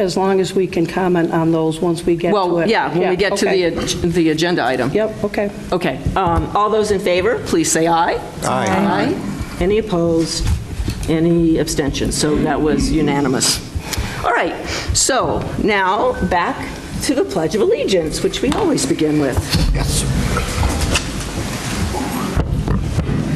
As long as we can comment on those once we get to it. Well, yeah, when we get to okay. the, ag- the agenda item. Yep, okay. Okay, um, all those in favor, please say aye. Aye. Any opposed? Any abstentions? So that was unanimous. All right, so now back to the Pledge of Allegiance, which we always begin with.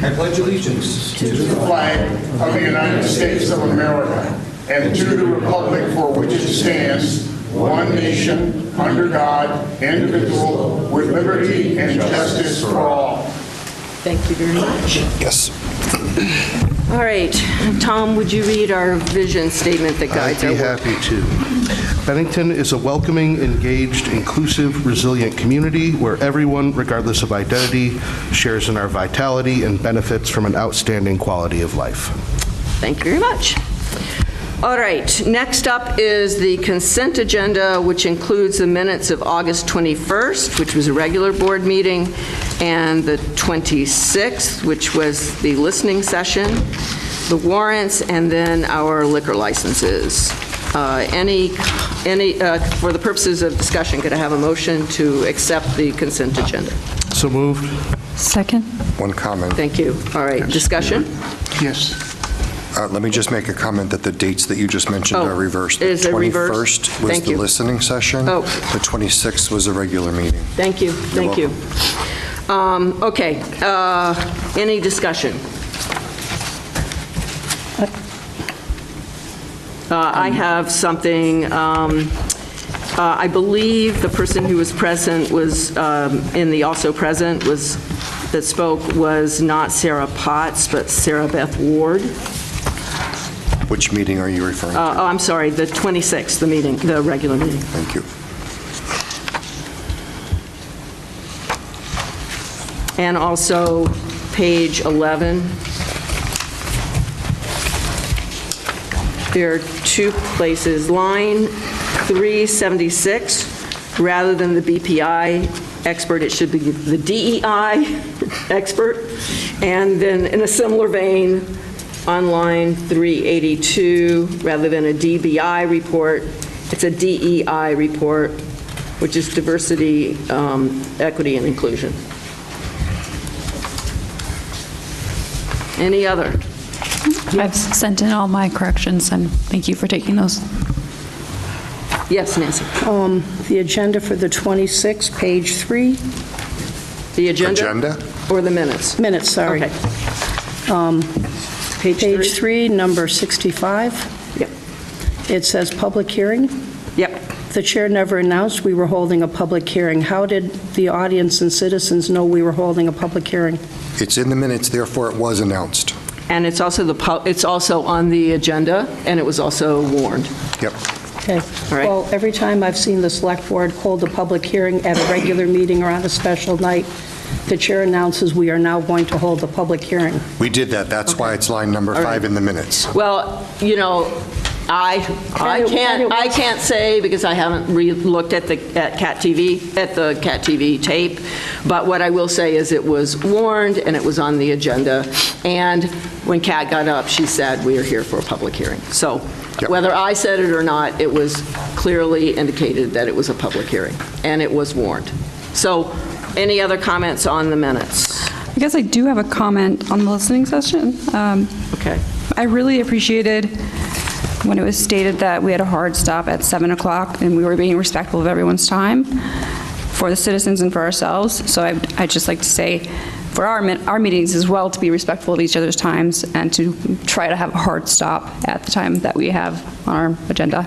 I pledge allegiance to the flag of the United States of America and to the republic for which it stands, one nation, under God, indivisible, with liberty and justice for all. Thank you very much. Yes. All right, Tom, would you read our vision statement that guides our work? I'd be happy to. Bennington is a welcoming, engaged, inclusive, resilient community where everyone, regardless of identity, shares in our vitality and benefits from an outstanding quality of life. Thank you very much. All right, next up is the consent agenda, which includes the minutes of August 21st, which was a regular board meeting, and the 26th, which was the listening session, the warrants, and then our liquor licenses. Uh, Any, any, uh, for the purposes of discussion, could I have a motion to accept the consent agenda? So moved. Second? One comment. Thank you. All right, discussion? Yes. Uh, Let me just make a comment that the dates that you just mentioned Oh, are reversed. The is it reversed? 21st was Thank the you. listening session. Oh. The 26th was a regular meeting. Thank you, thank you. Um, Okay, uh, any discussion? Uh, I have something, um, uh, I believe the person who was present was, um, in the also present was, that spoke was not Sarah Potts, but Sarah Beth Ward. Which meeting are you referring Uh, to? Oh, I'm sorry, the 26th, the meeting, the regular meeting. Thank you. And also, page 11. There are two places, line 376, rather than the BPI expert, it should be the DEI expert. And then, in a similar vein, on line 382, rather than a DBI report, it's a DEI report, which is diversity, um, equity, and inclusion. Any other? I've sent in all my corrections, and thank you for taking those. Yes, Nancy. Um, The agenda for the 26th, page three, The agenda? Agenda? Or the minutes? minutes, sorry. Um, Okay. Page three? three, number 65. Yep. It says public hearing. Yep. The chair never announced we were holding a public hearing. How did the audience and citizens know we were holding a public hearing? It's in the minutes, therefore it was announced. And it's also the, pu- it's also on the agenda, and it was also warned. Yep. Okay. All right. Well, every time I've seen the select board hold a public hearing at a regular meeting or on a special night, the chair announces we are now going to hold a public hearing. We did that. That's why it's line number five in the minutes. Well, you know, I, I Credit- can't, credit I was- can't say, because I haven't re-looked at the, at Cat TV, at the Cat TV tape, but what I will say is it was warned, and it was on the agenda, and when Kat got up, she said, "We are here for a public hearing." So Yep. whether I said it or not, it was clearly indicated that it was a public hearing, and it was warned. So, any other comments on the minutes? I guess I do have a comment on the listening session. Um, Okay. I really appreciated when it was stated that we had a hard stop at 7 o'clock, and we were being respectful of everyone's time for the citizens and for ourselves. So I- I'd just like to say, for our min- our meetings as well, to be respectful of each other's times and to try to have a hard stop at the time that we have on our agenda.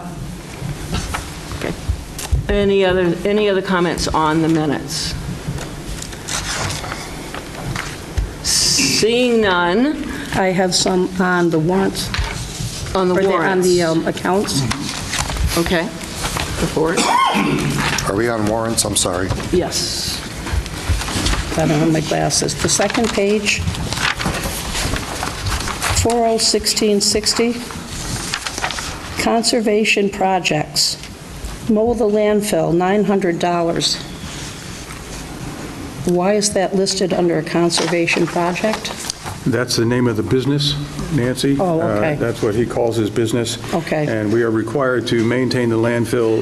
Okay. Any other, any other comments on the minutes? Seeing none I have some on the warrants. on the or On the warrants. um, accounts. Okay. The warrant? Are we on warrants? I'm sorry. Yes. I don't have my glasses. The second page, 401660, conservation projects. Mow the landfill, $900. Why is that listed under a conservation project? That's the name of the business, Nancy. Oh, okay. Uh, That's what he calls his business. Okay. And we are required to maintain the landfill